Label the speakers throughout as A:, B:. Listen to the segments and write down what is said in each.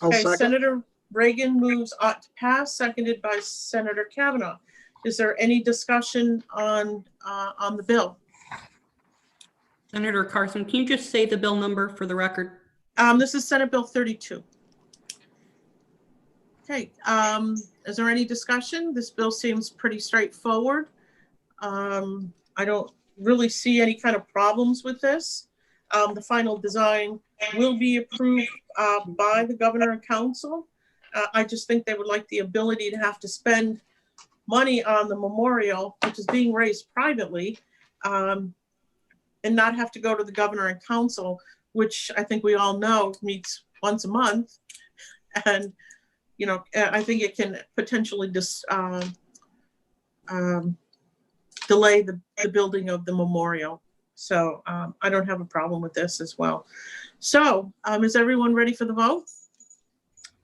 A: I'll
B: Okay,
A: second.
B: Senator Reagan moves ought to pass, seconded by Senator Kavanaugh. Is there any discussion on, uh, on the bill?
C: Senator Carson, can you just say the bill number for the record?
B: Um, this is Senate Bill thirty-two. Okay, um, is there any discussion? This bill seems pretty straightforward. Um, I don't really see any kind of problems with this. Um, the final design will be approved, uh, by the governor and council. Uh, I just think they would like the ability to have to spend money on the memorial, which is being raised privately, um, and not have to go to the governor and council which I think we all know meets once a month. And, you know, uh, I think it can potentially just, um, um, delay the, the building of the memorial. So, um, I don't have a problem with this as well. So, um, is everyone ready for the vote?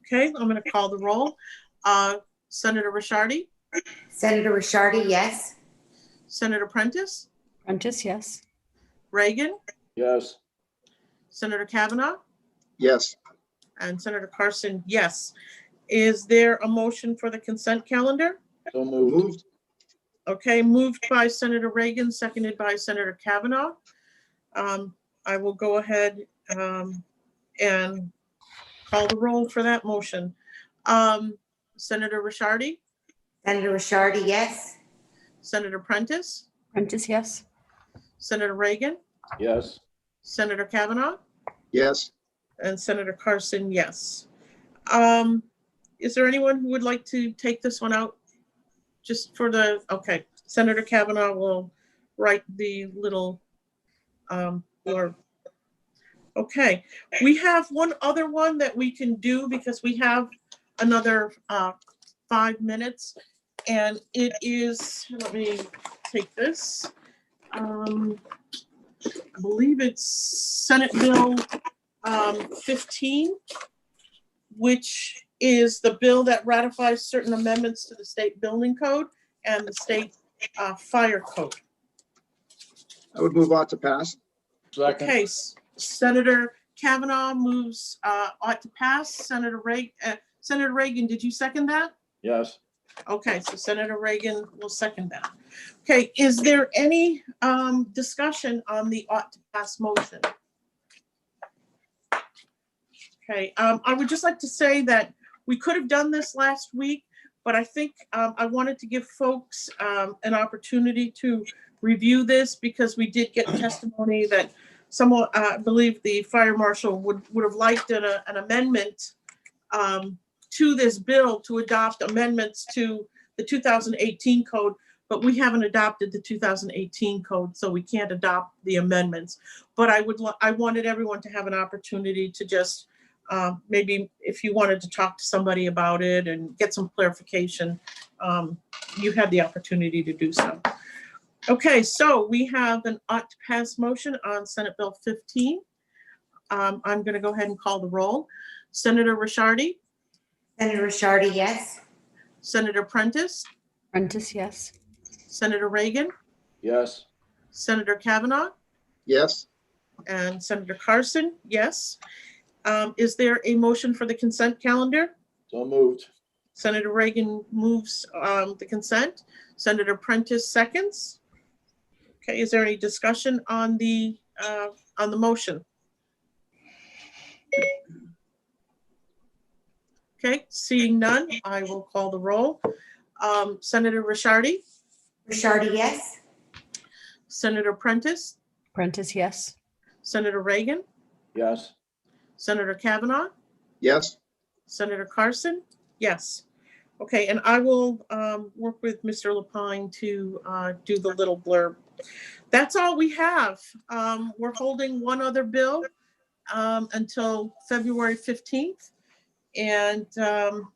B: Okay, I'm gonna call the roll. Uh, Senator Rishardi,
D: Senator Rishardi, yes.
B: Senator Prentice,
E: Prentice, yes.
B: Reagan,
F: Yes.
B: Senator Kavanaugh?
A: Yes,
B: And Senator Carson, yes. Is there a motion for the consent calendar?
F: So
A: moved.
F: moved.
B: Okay, moved by Senator Reagan, seconded by Senator Kavanaugh. Um, I will go ahead um, and call the roll for that motion. Um, Senator Rishardi,
D: Senator Rishardi, yes.
B: Senator Prentice,
E: Prentice, yes.
B: Senator Reagan,
F: Yes.
B: Senator Kavanaugh,
A: yes,
B: and Senator Carson, yes. Um, Is there anyone who would like to take this one out? Just for the, okay, Senator Kavanaugh will write the little, um, blurb. Okay, we have one other one that we can do because we have another uh, five minutes. And it is, let me take this. Um, I believe it's Senate Bill um, 15, which is the bill that ratifies certain amendments to the state building code and the state uh, fire code.
A: I would move on to pass.
F: Second.
B: Okay, S- Senator Kavanaugh moves, uh, ought to pass. Senator Reagan, Senator Reagan, did you second that?
F: Yes.
B: Okay, so Senator Reagan will second that. Okay, is there any um, discussion on the ought to pass motion? Okay, um, I would just like to say that we could have done this last week, but I think um, I wanted to give folks um, an opportunity to review this because we did get testimony that someone, uh, I believe the fire marshal would, would have liked an uh, an amendment um, to this bill to adopt amendments to the 2018 code, but we haven't adopted the 2018 code, so we can't adopt the amendments. But I would, lo- I wanted everyone to have an opportunity to just, uh, maybe if you wanted to talk to somebody about it and get some clarification, um, you had the opportunity to do so. Okay, so we have an ought to pass motion on Senate Bill 15. Um, I'm going to go ahead and call the roll. Senator Rishardi?
D: Senator Rishardi, yes.
B: Senator Prentice,
E: Prentice, yes.
B: Senator Reagan,
F: Yes.
B: Senator Kavanaugh,
A: Yes,
B: and Senator Carson, yes. Um, Is there a motion for the consent calendar?
F: So moved.
B: Senator Reagan moves um, the consent. Senator Prentice seconds. Okay, is there any discussion on the, uh, on the motion? Okay, seeing none, I will call the roll. Um, Senator Rishardi,
D: Rishardi, yes.
B: Senator Prentice,
E: Prentice, yes.
B: Senator Reagan,
F: Yes.
B: Senator Kavanaugh,
A: yes,
B: Senator Carson, yes. Okay, and I will um, work with Mr. Lapine to uh, do the little blurb. That's all we have. Um, We're holding one other bill um, until February 15th. And um,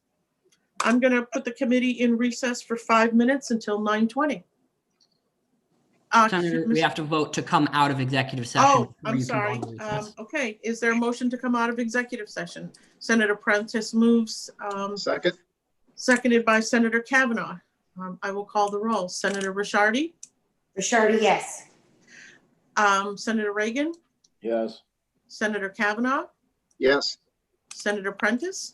B: I'm going to put the committee in recess for five minutes until 9:20. Uh,
C: Senator, we
B: Mr.
C: have to vote to come out of executive session.
B: Oh,
C: before
B: I'm
C: you can go
B: sorry.
C: into recess.
B: Um, Okay, is there a motion to come out of executive session? Senator Prentice moves, um,
A: second,
B: seconded by Senator Kavanaugh. Um, I will call the roll. Senator Rishardi,
D: Rishardi, yes.
B: um, Senator Reagan,
F: Yes.
B: Senator Kavanaugh,
A: yes.
B: Senator Prentice,